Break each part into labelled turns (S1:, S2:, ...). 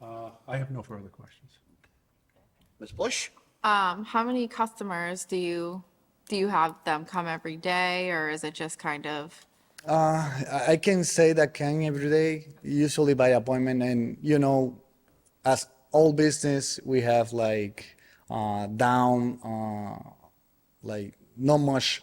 S1: Uh, I have no further questions.
S2: Ms. Bush?
S3: Um, how many customers do you, do you have them come every day or is it just kind of?
S4: I I can say that can every day, usually by appointment, and you know, as all business, we have like uh, down, uh, like not much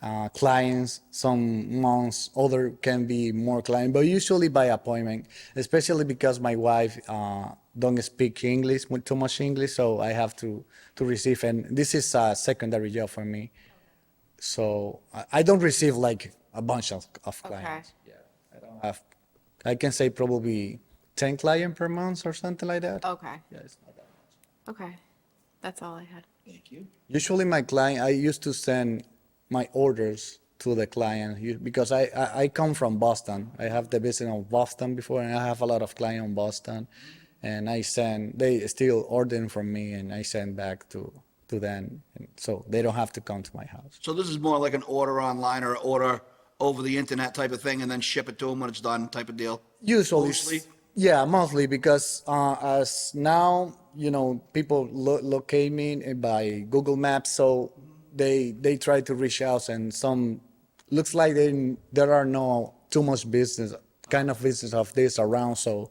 S4: uh, clients. Some months, other can be more client, but usually by appointment, especially because my wife uh, don't speak English mu- too much English, so I have to to receive, and this is a secondary job for me. So I, I don't receive like a bunch of, of
S3: Okay.
S4: clients. I have, I can say probably 10 clients per month or something like that.
S3: Okay.
S2: Yeah, it's not that much.
S3: Okay. That's all I had.
S2: Thank you.
S4: Usually my client, I used to send my orders to the client you- because I, I, I come from Boston. I have the business of Boston before and I have a lot of clients in Boston and I send, they still ordering from me and I send back to, to them. And so they don't have to come to my house.
S2: So this is more like an order online or order over the internet type of thing and then ship it to them when it's done type of deal?
S4: Usually,
S2: Mostly?
S4: s- yeah, mostly because uh, as now you know people lo- locate me in- by Google Maps, so they they try to reach out, and some looks like they, there are no too much business kind of business of this around, so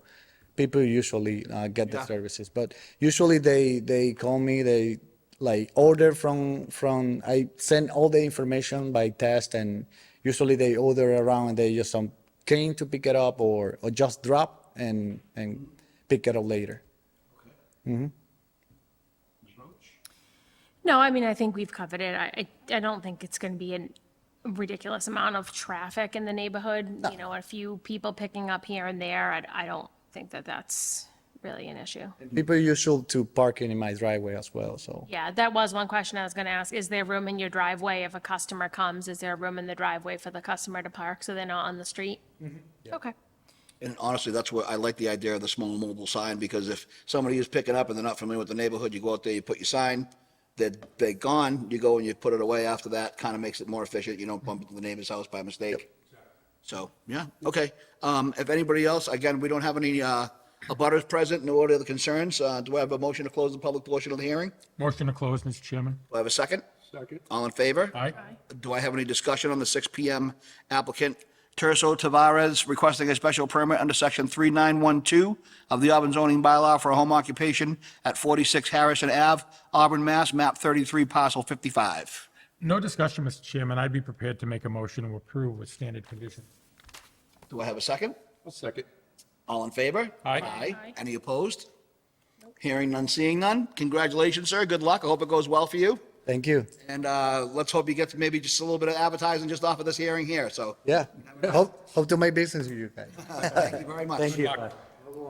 S4: people usually uh, get the
S2: Yeah.
S4: services. But usually they they call me they like order from from I send all the information by test and usually they order around and they just some came to pick it up or or just drop and and pick it up later.
S5: No, I mean, I think we've covered it. I, I I don't think it's going to be a ridiculous amount of traffic in the neighborhood. You know, a few people picking up here and there. I, I don't think that that's really an issue.
S4: People usually to parking in my driveway as well, so
S5: Yeah, that was one question I was going to ask. Is there room in your driveway if a customer comes? Is there room in the driveway for the customer to park so they're not on the street? Okay.
S2: And honestly, that's what I like the idea of the small mobile sign because if somebody is picking up and they're not familiar with the neighborhood, you go out there, you put your sign, they're, they're gone, you go and you put it away after that, kind of makes it more efficient. You don't bump into the neighbor's house by mistake. So, yeah, okay. Um, if anybody else, again, we don't have any, uh, abutters present, no other concerns. Uh, do I have a motion to close the public portion of the hearing?
S6: Motion to close, Mr. Chairman.
S2: Do I have a second?
S1: Second.
S2: All in favor?
S6: Aye.
S2: Do I have any discussion on the 6 PM applicant Terso Tavares requesting a special permit under section 3912 of the Auburn zoning bylaw for a home occupation at 46 Harrison Ave, Auburn, Mass., map 33, parcel 55?
S6: No discussion, Mr. Chairman. I'd be prepared to make a motion to approve with standard conditions.
S2: Do I have a second?
S1: A second.
S2: All in favor?
S6: Aye.
S2: Aye. Any opposed? Hearing none, seeing none. Congratulations, sir. Good luck. I hope it goes well for you.
S4: thank you.
S2: And uh, let's hope you get maybe just a little bit of advertising just off of this hearing here. So
S4: Yeah, hope hope to make business with you guys.
S2: thank you very much.
S4: Thank you.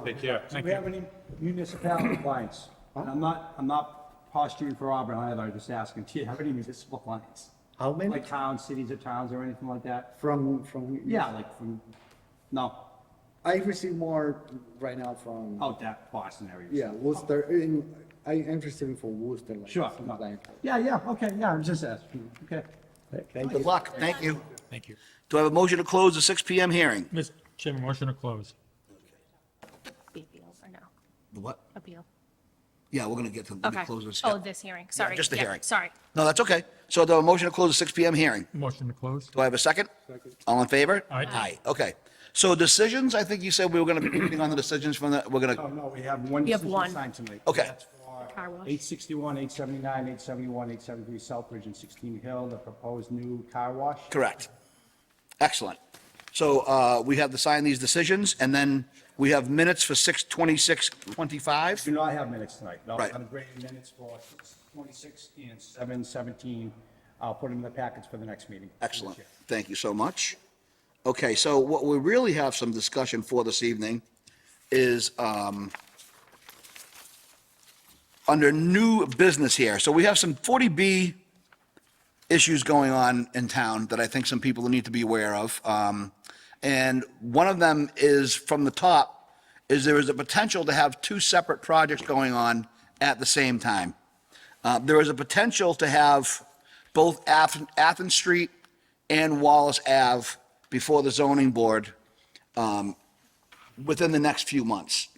S6: Take care. Thank
S7: Do we have any municipality clients? And I'm not, I'm not posturing for Auburn either, I'm just asking, do you have any municipal clients?
S4: How many?
S7: Like towns, cities or towns or anything like that?
S4: From from
S7: Yeah, like from, no,
S4: I receive more right now from
S7: out that Boston area.
S4: Worcester. In, I am receiving for Worcester. Like,
S7: Sure. no. Yeah, yeah, okay, yeah, I'm just asking, okay.
S4: Thank
S2: Good luck. Thank you.
S6: Thank you.
S2: Do I have a motion to close the 6 PM hearing?
S6: Mr. Chairman, motion to close.
S5: Be Appeal or no?
S2: The What?
S5: Appeal.
S2: Yeah, we're going to get to, let me
S5: Okay.
S2: close this.
S5: Oh, this hearing. Sorry.
S2: just the
S5: Yeah,
S2: hearing.
S5: Sorry.
S2: No, that's okay. So the motion to close the 6 PM hearing.
S6: Motion to close.
S2: Do I have a second? Second. All in favor?
S6: Aye.
S2: Aye, okay. So decisions, I think you said we were going to be meeting on the decisions from the, we're going
S7: Oh,
S2: to,
S7: no, we have one
S5: We have
S7: decision
S5: one.
S7: signed tonight.
S2: Okay.
S7: That's for
S5: Car wash.
S7: 861, 879, 871, 873 Southbridge and 16 Hill, the proposed new car wash.
S2: correct. Excellent. So uh, we have to sign these decisions, and then we have minutes for 6:26:25.
S7: Do not have minutes tonight. No,
S2: Right.
S7: I'm grading minutes for 26 and 717. I'll put them in the packets for the next meeting.
S2: Excellent. Thank you so much. Okay, so what we really have some discussion for this evening is um, under new business here. So we have some 40B issues going on in town that I think some people need to be aware of. Um, And one of them is from the top, is there is a potential to have two separate projects going on at the same time. Uh, There is a potential to have both Ath- Athens Street and Wallace Ave before the zoning board um, within the next few months.